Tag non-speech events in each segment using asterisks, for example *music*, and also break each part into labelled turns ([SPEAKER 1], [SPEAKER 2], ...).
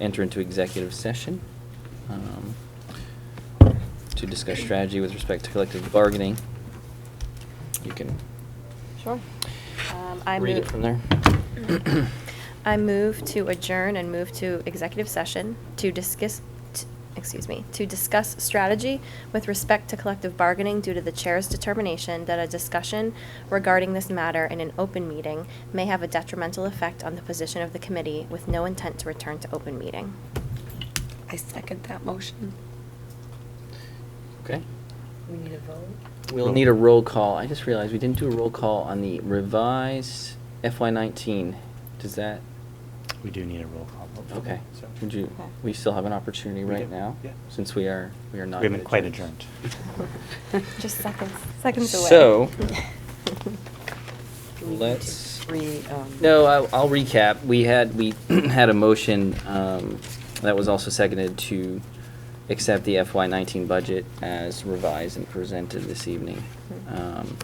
[SPEAKER 1] enter into executive session um, to discuss strategy with respect to collective bargaining. You can
[SPEAKER 2] Sure. Um, I
[SPEAKER 1] read it
[SPEAKER 2] move-
[SPEAKER 1] from there.
[SPEAKER 2] I move to adjourn and move to executive session to discuss, t- excuse me, to discuss strategy with respect to collective bargaining due to the chair's determination that a discussion regarding this matter in an open meeting may have a detrimental effect on the position of the committee with no intent to return to open meeting.
[SPEAKER 3] I second that motion.
[SPEAKER 1] Okay.
[SPEAKER 4] We need a vote?
[SPEAKER 1] We'll need a roll call. I just realized we didn't do a roll call on the revised FY nineteen. Does that,
[SPEAKER 5] We do need a roll call. vote for that,
[SPEAKER 1] okay.
[SPEAKER 5] so-
[SPEAKER 1] Would you,
[SPEAKER 2] Okay.
[SPEAKER 1] we still have an opportunity
[SPEAKER 5] We
[SPEAKER 1] right
[SPEAKER 5] do,
[SPEAKER 1] now?
[SPEAKER 5] yeah.
[SPEAKER 1] Since we are, we are not.
[SPEAKER 5] We haven't
[SPEAKER 1] *laughs*
[SPEAKER 5] quite adjourned.
[SPEAKER 2] Just seconds, seconds away. *laughs*
[SPEAKER 1] So-
[SPEAKER 4] Do we need to
[SPEAKER 1] Let's-
[SPEAKER 4] Re, um.
[SPEAKER 1] No, I- I'll recap. We had, we *clears throat* had a motion um, that was also seconded to accept the FY nineteen budget as revised and presented this evening.
[SPEAKER 4] Mm-hmm.
[SPEAKER 1] Um,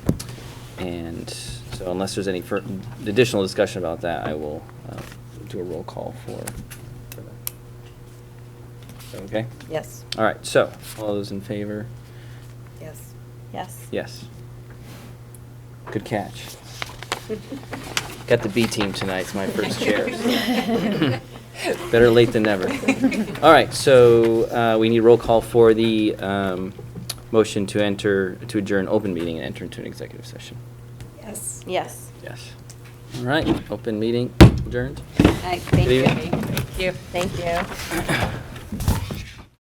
[SPEAKER 1] And so unless there's any fur- additional discussion about that, I will uh, do a roll call for. for that. Okay?
[SPEAKER 4] Yes,
[SPEAKER 1] All right, so, all those in favor?
[SPEAKER 4] yes.
[SPEAKER 2] Yes.
[SPEAKER 1] Yes. Good catch. Got the B team tonight, it's my
[SPEAKER 3] *laughs*
[SPEAKER 1] first chair. Better late than never. All right, so uh, we need roll call for the um, motion to enter, to adjourn open meeting and enter into an executive session.
[SPEAKER 3] Yes.
[SPEAKER 2] Yes.
[SPEAKER 1] Yes. All right, open meeting adjourned.
[SPEAKER 3] All right, thank
[SPEAKER 1] Good
[SPEAKER 3] you.
[SPEAKER 1] evening.
[SPEAKER 3] Thank you.
[SPEAKER 2] Thank you.